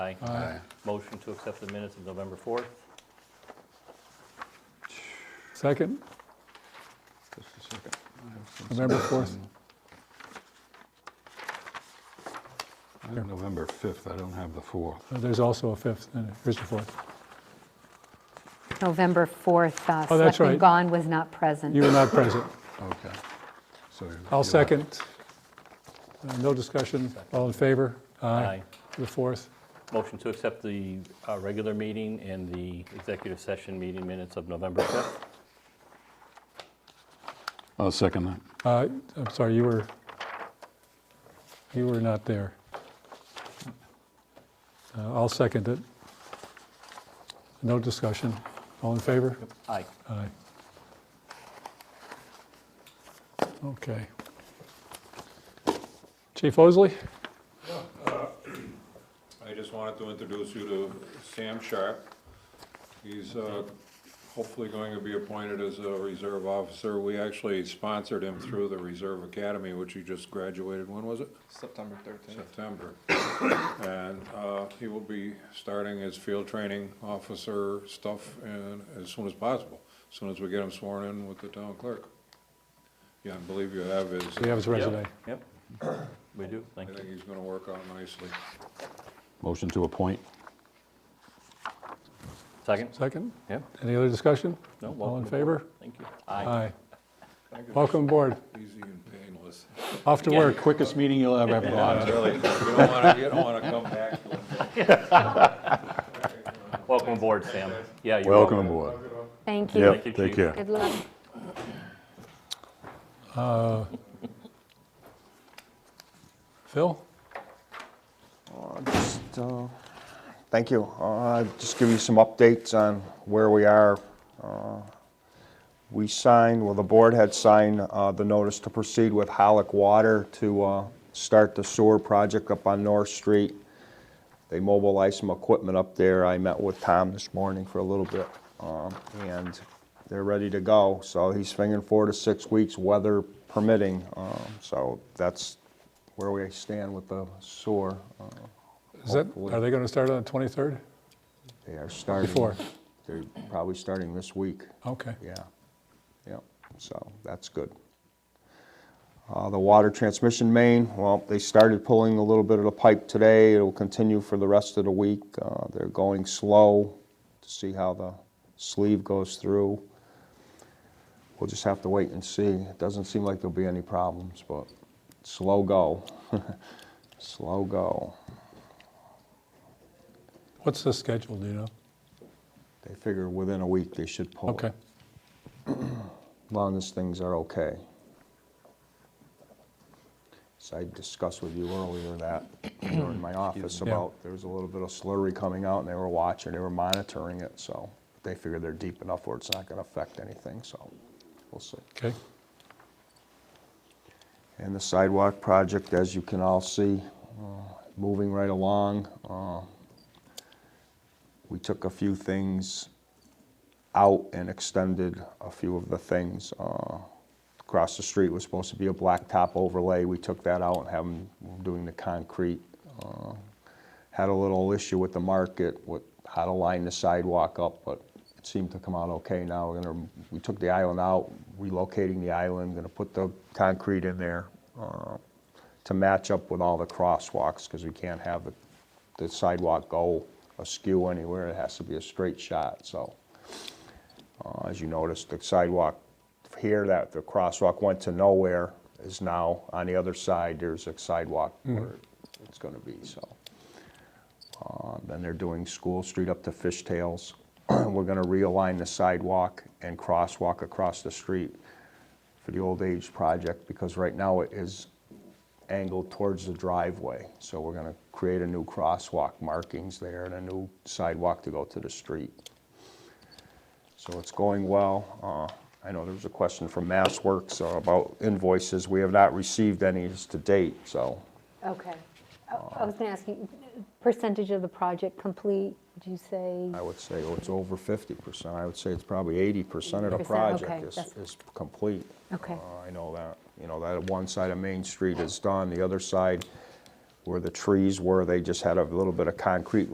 Aye. Aye. Motion to accept the minutes of November 4th. Second, Just a second. I have some November stuff 4th. on- I have November 5th, I don't have the 4th. Uh, there's also a fifth, and here's the fourth. November 4th, uh, Oh, that's Selectman right. Gahn was not You present. were not present. Okay. So I'll you're- second. Uh, No discussion, all in favor? The fourth, Motion to accept the uh, regular meeting and the executive session meeting minutes of November 5th. I'll second that. Uh, I'm sorry, you were, you were not there. Uh, I'll second it. No discussion, all in favor? Aye. Aye. Okay. Chief Osley? I just wanted to introduce you to Sam Sharp. He's uh, hopefully going to be appointed as a reserve officer. We actually sponsored him through the Reserve Academy, which he just graduated, when was it? September 13th. September. And uh, he will be starting his field training officer stuff and as soon as possible, as soon as we get him sworn in with the town clerk. Yeah, I believe you have his, We have his resume. Yep, Yep. We do, I thank you. think he's gonna work out nicely. Motion to appoint. Second? Second? Yep. Any other discussion? No, All in welcome favor? Thank you. Aye. Aye. Welcome aboard. Easy and painless. Off to work. Quickest meeting you'll ever have, Yeah, really, you don't wanna, you don't wanna come back to it. Welcome aboard, Sam. Yeah, you're Welcome welcome. aboard. Thank you. Yep, Thank you, take Chief. care. Good luck. Phil? Just, uh, Thank you. Uh, Just give you some updates on where we are. Uh, We signed, well, the board had signed uh, the notice to proceed with Holic Water to uh, start the sewer project up on North Street. They mobilized some equipment up there. I met with Tom this morning for a little bit, um, and they're ready to go. So he's figuring four to six weeks, weather permitting. Um, So that's where we stand with the sewer. Uh, Is that, Hopefully. are they going to start on the 23rd? They are starting. Before. They're probably starting this week, Okay. yeah. Yeah, so that's good. Uh, The water transmission main, well, they started pulling a little bit of the pipe today. It'll continue for the rest of the week. Uh, They're going slow to see how the sleeve goes through. We'll just have to wait and see. It doesn't seem like there'll be any problems, but slow go. Slow go. What's the schedule, do you know? They figure within a week they should pull it. Okay. long as things are okay. So I discussed with you earlier that you were in my office me. Yeah. about, there was a little bit of slurry coming out, and they were watching, they were monitoring it, so they figure they're deep enough where it's not gonna affect anything, so we'll see. Okay. And the sidewalk project, as you can all see, uh, moving right along. Uh, We took a few things out and extended a few of the things. Uh, Across the street was supposed to be a blacktop overlay. We took that out and have them doing the concrete. Uh, Had a little issue with the market, with how to line the sidewalk up, but it seemed to come out okay now. We're gonna, we took the island out, relocating the island, gonna put the concrete in there uh, to match up with all the crosswalks, because we can't have the- the sidewalk go askew anywhere. It has to be a straight shot, so. Uh, As you notice, the sidewalk here, that the crosswalk went to nowhere, is now on the other side, there's a sidewalk where it's gonna be, so. Uh, Then they're doing School Street up to Fishtails. We're gonna realign the sidewalk and crosswalk across the street for the old age project, because right now it is angled towards the driveway. So we're gonna create a new crosswalk markings there and a new sidewalk to go to the street. So it's going well. Uh, I know there was a question from MassWorks Works uh, about invoices. We have not received any as to date, so Okay. I I was going to ask you, percentage of the project complete, would you say? I would say oh, it's over fifty percent. I would say it's probably eighty percent of the 80%, okay, project is, that's- is complete. Okay. Uh, I know that, you know, that one side of Main Street is done, the other side where the trees were, they just had a little bit of concrete